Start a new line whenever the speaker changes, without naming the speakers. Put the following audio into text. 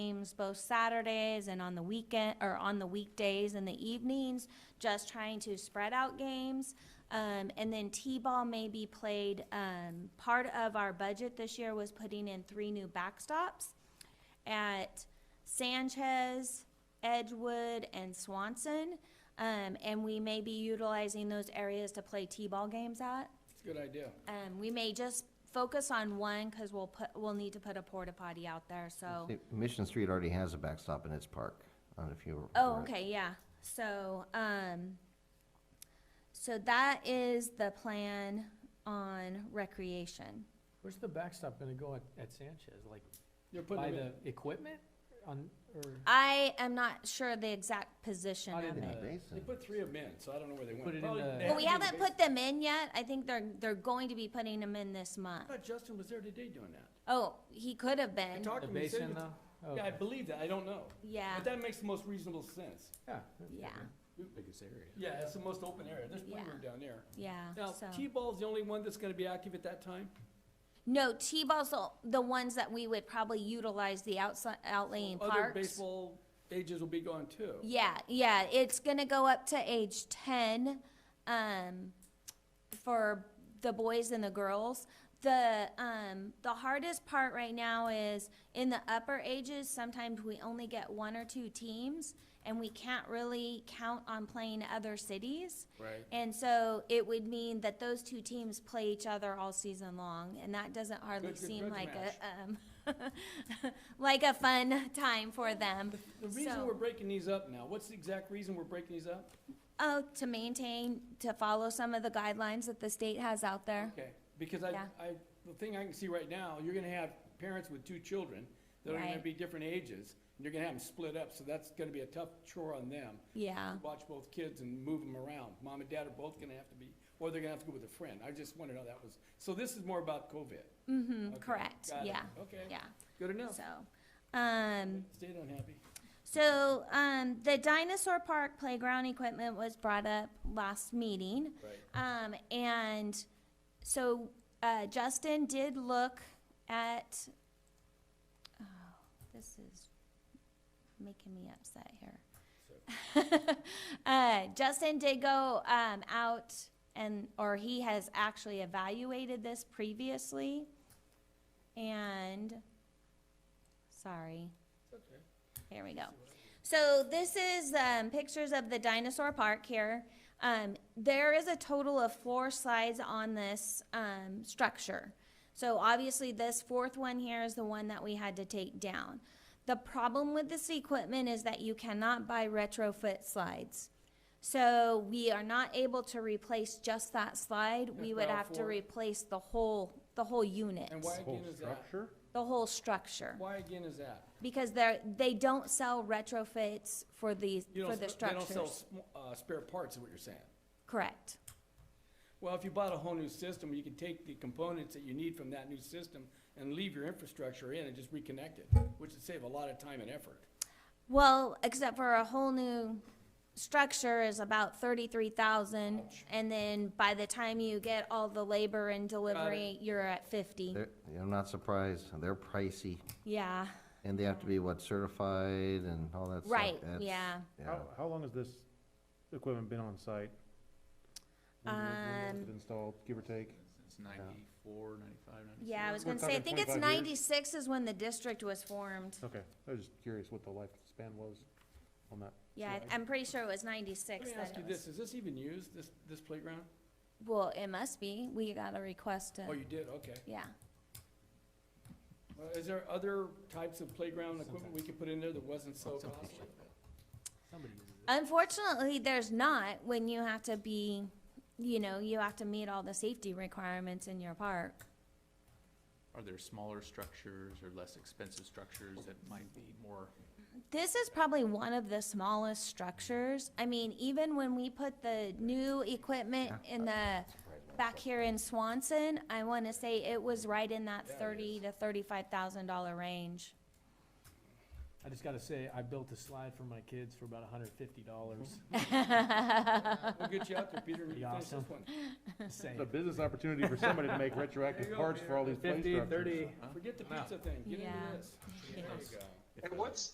meetings both Saturdays and on the weekend, or on the weekdays and the evenings, just trying to spread out games. Um, and then T-ball may be played, um, part of our budget this year was putting in three new backstops at Sanchez, Edgewood, and Swanson. Um, and we may be utilizing those areas to play T-ball games at.
It's a good idea.
Um, we may just focus on one, cause we'll put, we'll need to put a porta potty out there, so.
See, Mission Street already has a backstop in its park, I don't know if you.
Oh,
were-
okay, yeah, so, um, so that is the plan on recreation.
Where's the backstop gonna go at, at Sanchez, like
You're putting
by
them in.
the equipment on, or?
I am not sure the exact position
How did
of
they-
it.
In
Uh,
Basin.
They put three of them in, so I don't know where they went.
Put it in
Probably-
the-
they
Well,
had
But we
to do the
haven't
base-
put them in yet, I think they're, they're going to be putting them in this
I
month.
thought Justin was there today doing that.
Oh, he could have
I
been,
talked
The
to him, he said
basin
it was-
though?
Yeah, I
Okay.
believe that, I don't know.
yeah,
But that makes the most reasonable sense.
Yeah.
yeah,
biggest area.
Yeah, it's the most open area, there's plenty of
Yeah.
room down there.
yeah,
Now,
so.
T-ball's the only one that's gonna be active at that time?
No, T-ball's the, the ones that we would probably utilize the outside, outlaying
Other
parks.
baseball ages will be gone too.
Yeah, yeah, it's gonna go up to age ten, um, for the boys and the girls. The, um, the hardest part right now is in the upper ages, sometimes we only get one or two teams, and we can't really count on playing other cities.
Right.
And so it would mean that those two teams play each other all season long, and that doesn't hardly
Good- good
seem
grudge
like a, um, like a fun time for them.
The reason
So-
we're breaking these up now, what's the exact reason we're breaking these up?
Oh, to maintain, to follow some of the guidelines that the state has out there.
Okay, because I,
Yeah.
I, the thing I can see right now, you're gonna have parents with two children that are gonna
Right.
be different ages, and you're gonna have them split up, so that's gonna be a tough chore on them.
Yeah,
to Watch both kids and move them around. Mom and dad are both gonna have to be, or they're gonna have to go with a friend. I just wondered how that was, so this is more about COVID.
mm-hmm,
Okay,
correct,
got it. Oh.
yeah,
Okay,
yeah,
good enough.
so. Um,
Stayed unhappy.
so, um, the dinosaur park playground equipment was brought up last meeting.
Right.
Um, and so, uh, Justin did look at, oh, this is making me upset here. Uh, Justin did go, um, out and, or he has actually evaluated this previously. And, sorry. Here we go. So this is, um, pictures of the dinosaur park here. Um, there is a total of four slides on this, um, structure. So obviously this fourth one here is the one that we had to take down. The problem with this equipment is that you cannot buy retrofit slides. So we are not able to replace just that slide. We
Just
would
all
have to
four?
replace the whole, the whole unit,
And why
Whole
again is that?
structure?
the whole structure.
Why again is that?
Because they're, they don't sell retrofits for these,
You
for
don't,
the
sp- they don't sell,
structures.
sm- uh, spare parts is what you're saying.
Correct.
Well, if you bought a whole new system, you can take the components that you need from that new system and leave your infrastructure in and just reconnect it, which would save a lot of time and effort.
Well, except for a whole new structure is about thirty-three thousand, and then by the time you get all the labor and delivery, you're at fifty.
They're- I'm not surprised, they're pricey,
Yeah,
and they have to be, what, certified and all that stuff?
right,
That's-
yeah.
Yeah,
How, how long has this equipment been on site? When- when was
Um,
it Installed, give or take?
It's ninety-four, ninety-five, ninety-six.
Yeah, I was
We're
gonna say, I
talking
think it's
25 years?
ninety-six is when the district was formed.
Okay, I was just curious what the lifespan was on that.
Yeah, I-
Right.
I'm pretty sure it was
Let
ninety-six
me ask
that
you
it was.
this, is this even used, this, this playground?
Well, it must be. We got a request to,
Oh, you did, okay.
yeah.
Uh, Is there other types of playground equipment we could put in there that wasn't so costly?
Somebody uses it.
Unfortunately, there's not when you have to be, you know, you have to meet all the safety requirements in your park.
Are there smaller structures or less expensive structures that might be more?
This is probably one of the smallest structures. I mean, even when we put the new equipment in the, back here in Swanson, I wanna say it was right in that
Yeah, it
thirty
is.
to thirty-five thousand dollar range.
I just gotta say, I built a slide for my kids for about hundred fifty dollars.
We'll get you out there, Peter, and
Be
you finish this
awesome.
one.
Same.
It's a business opportunity for somebody to make retroactive parts for all these play
Fifty,
structures.
thirty.
Forget the pizza thing, get into
Yeah.
this. There you go.
if
And
a-
what's,